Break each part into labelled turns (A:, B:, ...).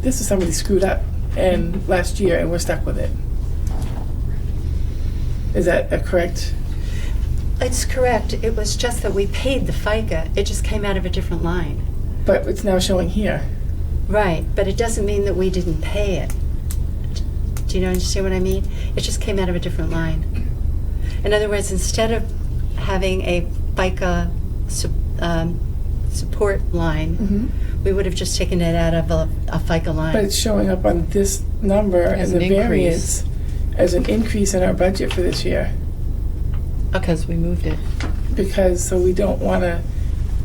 A: this is somebody screwed up and last year and we're stuck with it. Is that a correct?
B: It's correct. It was just that we paid the FICA. It just came out of a different line.
A: But it's now showing here.
B: Right, but it doesn't mean that we didn't pay it. Do you know, understand what I mean? It just came out of a different line. In other words, instead of having a FICA sup- um, support line,
A: Mm-hmm.
B: we would have just taken it out of a, a FICA line.
A: But it's showing up on this number as,
C: As
A: a
C: an increase.
A: variance, as an increase in our budget for this year.
B: okay,
C: because we moved it.
A: Because, so we don't want to,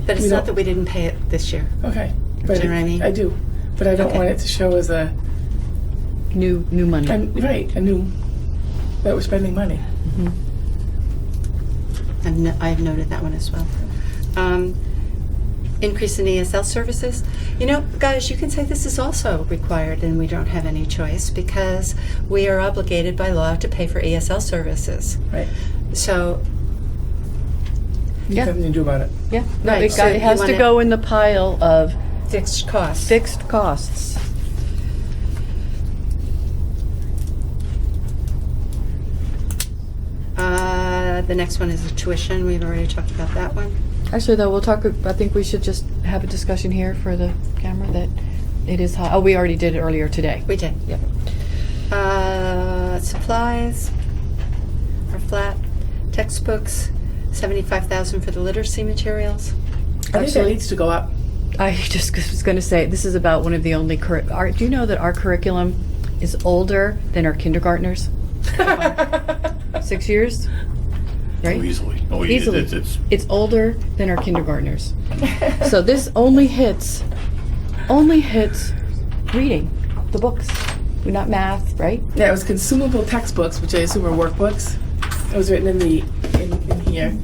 B: but it's
A: we
B: not
A: don't-
B: that we didn't pay it this year.
A: okay. but
B: Do you know what I
A: it-
B: mean?
A: I do. But I don't
B: Okay.
A: want it to show as a,
C: New, new money.
A: and, right, a new, that we're spending money.
B: I've, no, I've noted that one as well. Um, increase in ESL services. You know, guys, you can say this is also required and we don't have any choice because we are obligated by law to pay for ESL services.
A: Right.
B: So,
C: Yeah.
A: Nothing to do about it.
C: Yeah, no,
B: Right,
C: it
B: so
C: got-
B: you
C: it has
B: wanna-
C: to go in the pile of
B: fixed costs.
C: fixed costs.
B: Uh, the next one is tuition. We've already talked about that one.
C: Actually, though, we'll talk, I think we should just have a discussion here for the camera that it is high. Oh, we already did it earlier today.
B: We did.
C: Yep.
B: Uh, supplies are flat. Textbooks, 75000 for the literacy materials.
A: I think that
C: Actually-
A: needs to go up.
C: I just was going to say, this is about one of the only, curri- our- do you know that our curriculum is older than our kindergartners? Six years?
D: Oh,
C: Right?
D: easily. Oh, it-
C: Easily.
D: It's, it's,
C: It's older than our kindergartners. So this only hits, only hits reading, the books, not math, right?
A: Yeah, it was consumable textbooks, which I assume are workbooks. It was written in the, in, in here.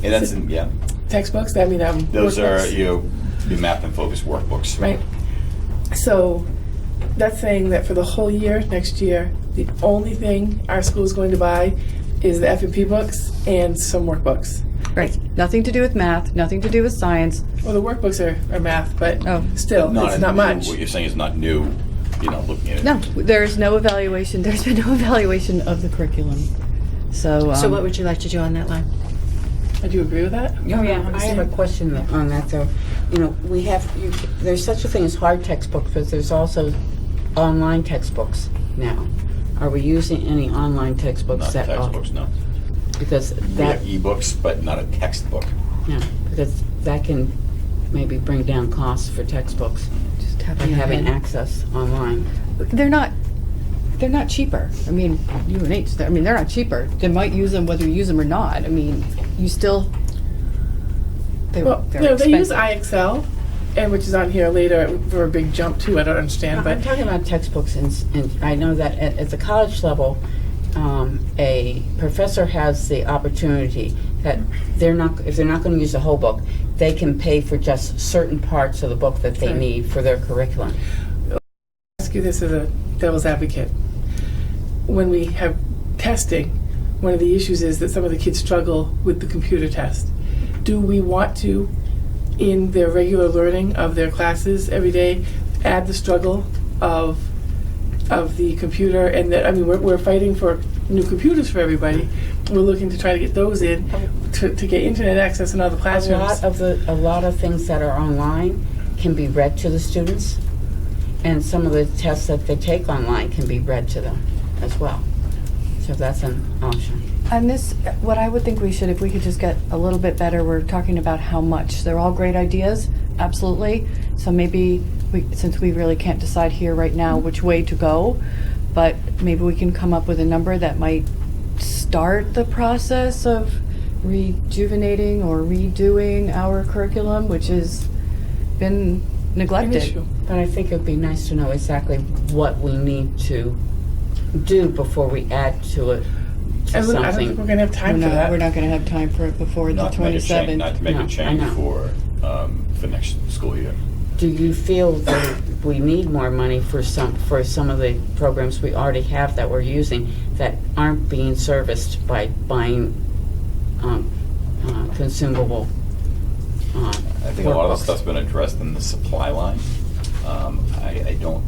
E: Yeah, that's, in- yeah.
A: Textbooks, I mean, um,
E: Those are,
A: workbooks.
E: you know, the math and focus workbooks.
A: Right. So that's saying that for the whole year, next year, the only thing our school is going to buy is the F&P books and some workbooks.
C: Right. Nothing to do with math, nothing to do with science.
A: Well, the workbooks are, are math, but
C: Oh.
A: still,
E: a
A: it's not
E: new-
A: much.
E: What you're saying is not new, you know, looking at it.
C: No, there's no evaluation, there's been no evaluation of the curriculum. So,
B: So,
C: um,
B: what would you like to do on that line?
A: Would you agree with that?
F: Oh, yeah, I have a question on that, though. You know, we have, you, there's such a thing as hard textbooks, but there's also online textbooks now. Are we using any online
E: Not
F: textbooks at all?
E: textbooks, no.
F: Because
E: We have
F: that,
E: ebooks, but not a textbook.
F: no, because that can maybe bring down costs for textbooks
C: just
F: by
C: tapping your
F: having
C: hand.
F: access online.
C: They're not, they're not cheaper. I mean, UNH, I mean, they're not cheaper. They might use them whether you use them or not. I mean, you still, they- they're
A: Well, no, they use
C: expensive.
A: IXL, and which is on here later for a big jump too. I don't understand,
F: I'm
A: but
F: talking about textbooks, and, s- and I know that at, at the college level, um, a professor has the opportunity that they're not, if they're not going to use the whole book, they can pay for just certain parts of the book that they
A: Right.
F: need for their curriculum.
A: ask you this as a devil's advocate. When we have testing, one of the issues is that some of the kids struggle with the computer test. Do we want to, in their regular learning of their classes every day, add the struggle of of the computer and that I mean we're, we're fighting for new computers for everybody. We're looking to try to get those in to, to get internet access in all the
F: A
A: classrooms.
F: lot of the, a lot of things that are online can be read to the students, and some of the tests that they take online can be read to them as well. So that's an option.
C: And this, what I would think we should, if we could just get a little bit better, we're talking about how much. They're all great ideas, absolutely. So maybe, we, since we really can't decide here right now which way to go, but maybe we can come up with a number that might start the process of rejuvenating or redoing our curriculum, which has been
A: An
C: neglected.
A: issue.
F: But I think it'd be nice to know exactly what we need to do before we add to it,
A: I
F: to
A: don't I don't think we're
F: something.
A: gonna have time
C: We're
A: for that.
C: not, we're not gonna have time for it before the
E: Not to make a change, not
C: twenty-seventh.
E: to make
F: No,
E: a
F: I
E: change
F: know.
E: for, um, for next school year.
F: Do you feel that we need more money for some, for some of the programs we already have that we're using that aren't being serviced by buying um, uh, consumable? uh,
E: I think a lot of
F: workbooks?
E: the stuff's been addressed in the supply line. Um, I, I don't